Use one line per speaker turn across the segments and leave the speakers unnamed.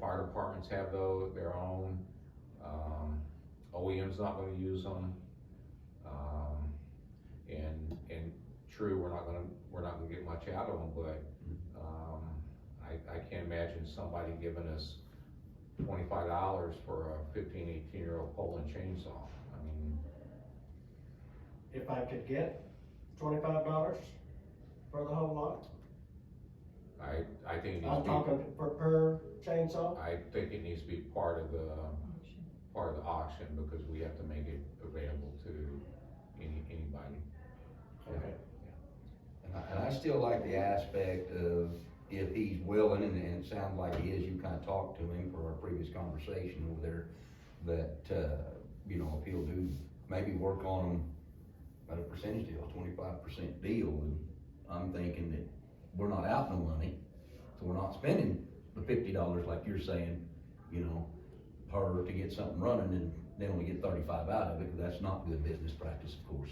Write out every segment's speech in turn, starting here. fire departments have those, their own, um, OEM's not gonna use them. Um, and, and true, we're not gonna, we're not gonna get much out of them, but, um, I, I can't imagine somebody giving us twenty-five dollars for a 15, 18 year old Poland chainsaw. I mean,
If I could get twenty-five dollars for the whole lot,
I, I think it needs
I'm
to be,
talking for per chainsaw,
I think it needs to be part of the, part of the auction because we have to make it available to any, anybody.
Okay.
And I- And I still like the aspect of if he's willing, and, and it sounds like he is, you kind of talked to him for our previous conversation over there, that, uh, you know, if he'll do, maybe work on at a percentage deal, twenty-five percent deal, and I'm thinking that we're not out no money, so we're not spending the fifty dollars like you're saying, you know, per to get something running, and they only get thirty-five out of it, 'cause that's not good business practice, of course.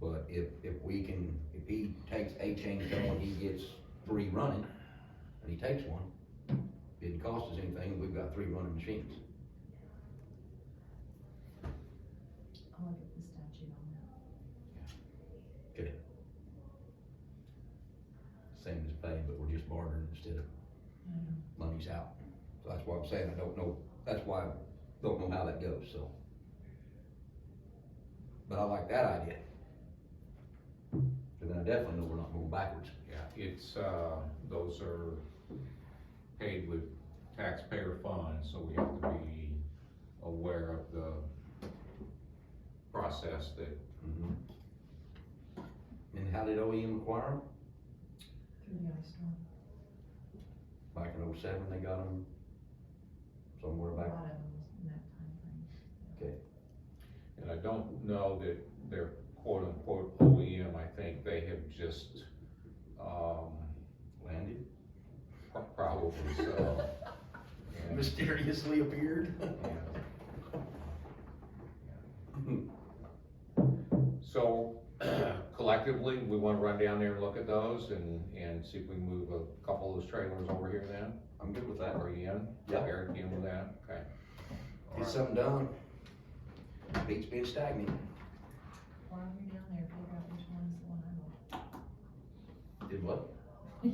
But if, if we can, if he takes a chainsaw and he gets three running, and he takes one, didn't cost us anything, we've got three running machines.
I'll look at the statute on that.
Same as pay, but we're just bartering instead of money's out. So that's why I'm saying I don't know, that's why I don't know how that goes, so. But I like that idea. And then I definitely know we're not going backwards.
Yeah, it's, uh, those are paid with taxpayer funds, so we have to be aware of the process that
Mm-hmm. And how did OEM acquire them?
Through the ice storm.
Back in oh-seven, they got them somewhere
A
back
lot of them was in that timeframe.
And I don't know that they're quote unquote OEM, I think they have just, um,
landed.
pro- probably so. And,
mysteriously appeared.
yeah. So collectively, we wanna run down there and look at those and, and see if we can move a couple of those trailers over here then,
I'm good with that.
are you in?
Yeah.
Eric, you in with that, okay. All
Get
right.
something done. Beats being stagnant.
While you're down there, figure out which one's the one I want.
Did what?
I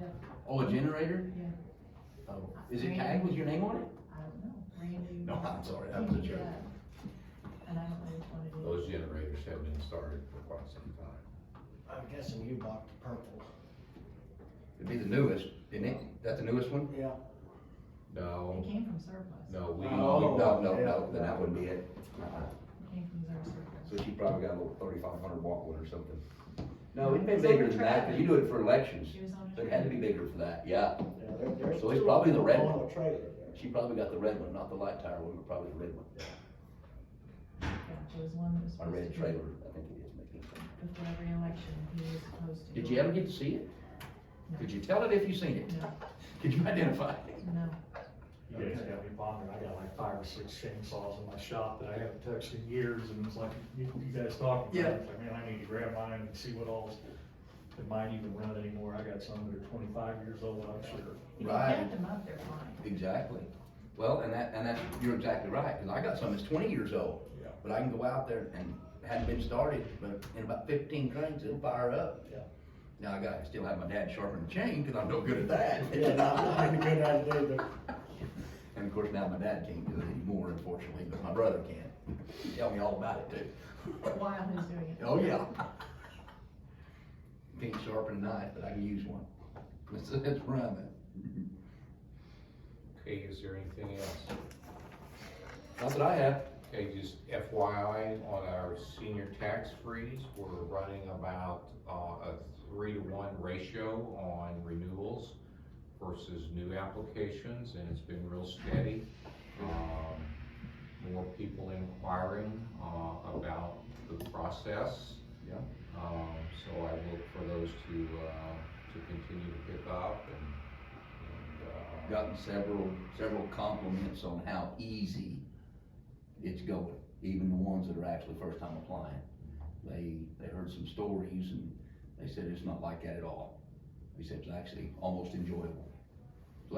know,
Oh, a generator?
yeah,
Oh, is it tagged with your name on it?
I don't know,
sorry,
Randy. you did that. And I don't know which one it is.
Those generators have been started for quite some time.
I'm guessing you bought the purple.
It'd be the newest, didn't it? Is that the newest one?
Yeah.
No,
It came from surplus.
no, we.
Oh.
No, no,
yeah.
no, then that wouldn't be it. Uh-uh.
It came from their surplus.
So she probably got a little thirty-five hundred watt one or something. No, it'd been
It's on
bigger
the
than that,
track.
cause you do it for elections.
She was on a
So it had to be
train.
bigger for that, yeah.
Yeah, there- there's
So it's
two
probably the
of
red
them
one.
On a trailer there.
She probably got the red one, not the light tire one, but probably the red one.
Yeah, there was one that was
Or
supposed to
red
be.
trailer, I think it is making.
Before every election, he was supposed to.
Did you ever get to see it?
No.
Could you tell it if you seen it?
No,
Could you identify it?
no,
You guys got me pondering, I got like five or six chainsaws in my shop that I haven't touched in years, and it's like, you, you guys talking
Yeah.
about, it, it's like, man, I need to grab mine and see what all's, did mine even run anymore, I got some that are twenty-five years old, I'm sure.
if you
Right.
count them up, they're fine.
Exactly. Well, and that, and that's, you're exactly right, because I got some that's twenty years old.
Yeah.
But I can go out there and hadn't been started, but in about fifteen cranes, it'll fire up.
Yeah.
Now I gotta still have my dad sharpen the chain, because I'm no good at that.
Yeah, not, not a good idea, but
And of course, now my dad can't do it anymore, unfortunately, but my brother can. Tell me all about it too.
While he's doing it.
Oh, yeah. Can't sharpen a knife, but I can use one. That's, that's running.
Okay, is there anything else?
Not that I have.
Okay, just FYI, on our senior tax freeze, we're running about, uh, a three to one ratio on renewals versus new applications, and it's been real steady. Um, more people inquiring, uh, about the process.
Yeah.
Um, so I look for those to, uh, to continue to pick up and, and, uh,
gotten several, several compliments on how easy it's going, even the ones that are actually first time applying. They, they heard some stories and they said it's not like that at all. They said it's actually almost enjoyable.